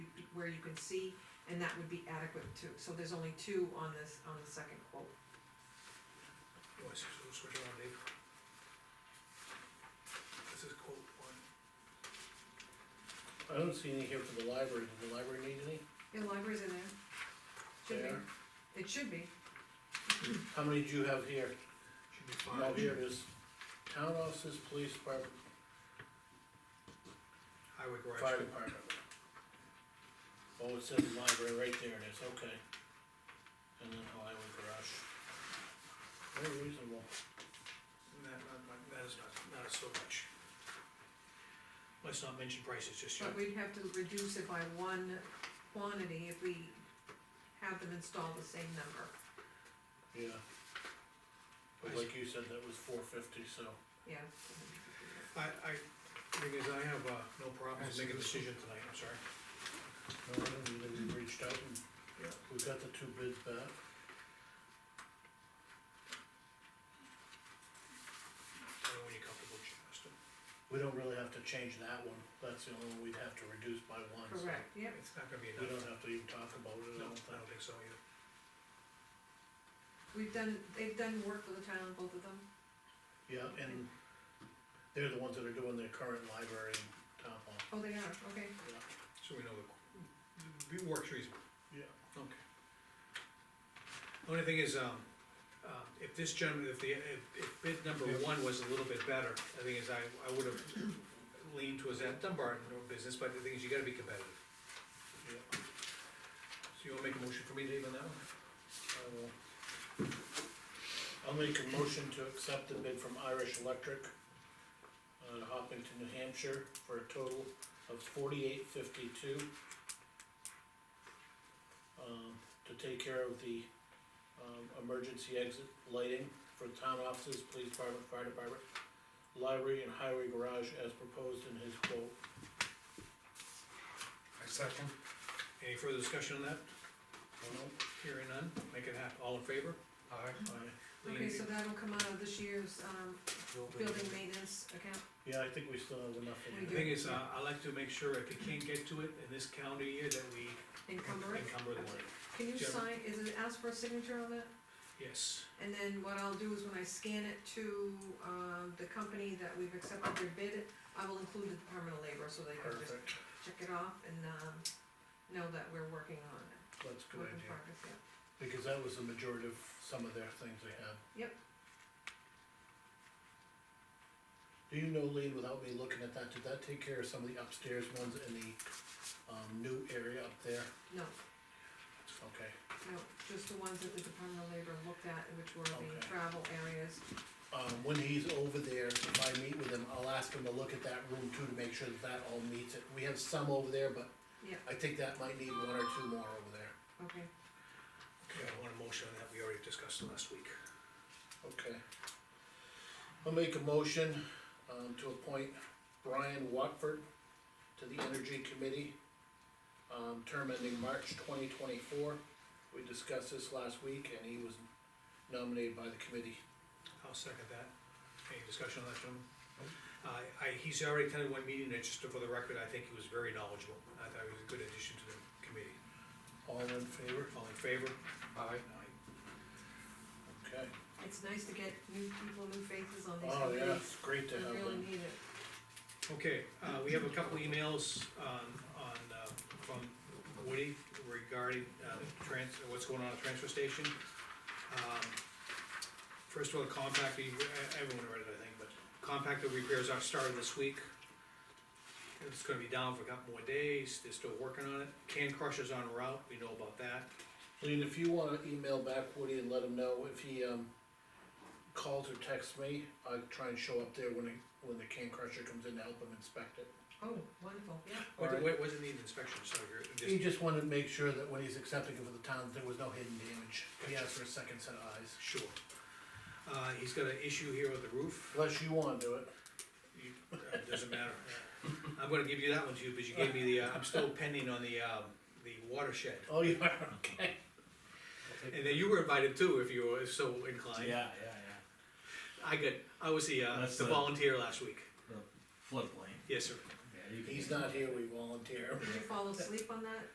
where you can see, and that would be adequate too, so there's only two on this, on the second quote. Let's just we'll switch around, Dave. This is quote one. I don't see any here for the library, did the library need any? Yeah, library's in there. Should There. be, it should be, How many do you have here? Should be No, here five. it is, town offices, police department, Highway fire garage. department. Oh, it says library, right there it is, okay. And then highway garage. Very reasonable. That, that- that- that is not, not so much. Let's not mention prices, just, you know, but we'd have to reduce it by one quantity if we have them install the same number. Yeah. But like you said, that was four fifty, so. Yeah. I, I, thing is, I have, uh, no problems making a decision tonight, I'm sorry. No, I don't need it. we reached out and Yeah. we got the two bids back. I don't know when you're comfortable, Justin. We don't really have to change that one, that's the only one we'd have to reduce by one. so Correct, yep, It's not gonna be We enough. don't have to even talk about it, I No, I don't think. don't think so either. we've done, they've done work for the town, both of them, Yeah, and they're the ones that are doing their current library and town hall. oh, they are, okay. So we know the, the works reasonable. Yeah. Okay. The Only thing is, um, um, if this gentleman, if the, if, if bid number Yeah. one was a little bit better, the thing is, I, I would have leaned towards that Dunbar business, but the thing is, you gotta be competitive. Yeah, So you wanna make a motion for me, Dave, on that one? I will. Uh, I'll make a motion to accept the bid from Irish Electric, uh, Hopkinton, New Hampshire, for a total of forty-eight fifty-two. Um, to take care of the, um, emergency exit lighting for town offices, police department, fire department, library and highway garage as proposed in his quote. I second. Any further discussion on that? Well, Hearing none, make it happen, all in favor? Aye. I- Lean, Okay, so that'll come out of this year's, um, building maintenance account, Yeah, I think we still have enough in The there. thing is, uh, I like to make sure if you can't get to it in this calendar year, that we encumber it. encumber the money. Can you Jennifer. sign, is it ask for a signature on that? Yes, And then what I'll do is when I scan it to, um, the company that we've accepted their bid, I will include the Department of Labor so they can just Perfect, check it off and, um, know that we're working on it. that's a good work in idea, progress, yeah. because that was the majority of some of their things they had. Yep. Do you know, Lean, without me looking at that, did that take care of some of the upstairs ones in the, um, new area up there? No, Okay, no, just the ones that the Department of Labor looked at, which were the Okay. travel areas. um, when he's over there, if I meet with him, I'll ask him to look at that room too, to make sure that that all meets it. We have some over there, but Yeah. I think that might need one or two more over there. Okay, okay, I want a motion on that, we already discussed it last week. Okay. I'll make a motion, um, to appoint Brian Watford to the Energy Committee, um, term ending March twenty twenty-four. We discussed this last week, and he was nominated by the committee. I'll second that. Any discussion on that, gentlemen? Uh, I, he's already attended one meeting, and just for the record, I think he was very knowledgeable. I thought he was a good addition to the committee. All in favor? All in favor? Aye. Okay. it's nice to get new people, new faces on these Oh, yeah, committees. it's great to We have really them. need it. Okay, uh, we have a couple emails on, on, uh, from Woody regarding, uh, trans, what's going on at the transfer station. Um, First of all, compact, e- everyone read it, I think, but compactor repairs are started this week. It's gonna be down for a couple more days, they're still working on it. Can crusher's on route, we know about that. Lean, if you wanna email back Woody and let him know if he, um, calls or texts me, I try and show up there when he, when the can crusher comes in to help him inspect it. Oh, wonderful, yeah. What, Alright. what, what does it need inspection, so you're, He just, just wanted to make sure that when he's accepting it for the town, there was no hidden damage. He asked for a second set of eyes. sure. Uh, he's got an issue here with the roof. Unless you wanna do it. You- It doesn't matter. I'm gonna give you that one too, because you gave me the, uh, I'm still pending on the, um, the watershed. Oh, you are, okay. And then you were invited too, if you were so inclined. Oh, Yeah, yeah, yeah. I got, I was the, uh, That's the the- volunteer last week. Floodplain. Yes, sir. Yeah, you can- He's not here, we volunteer. Did you fall asleep on that?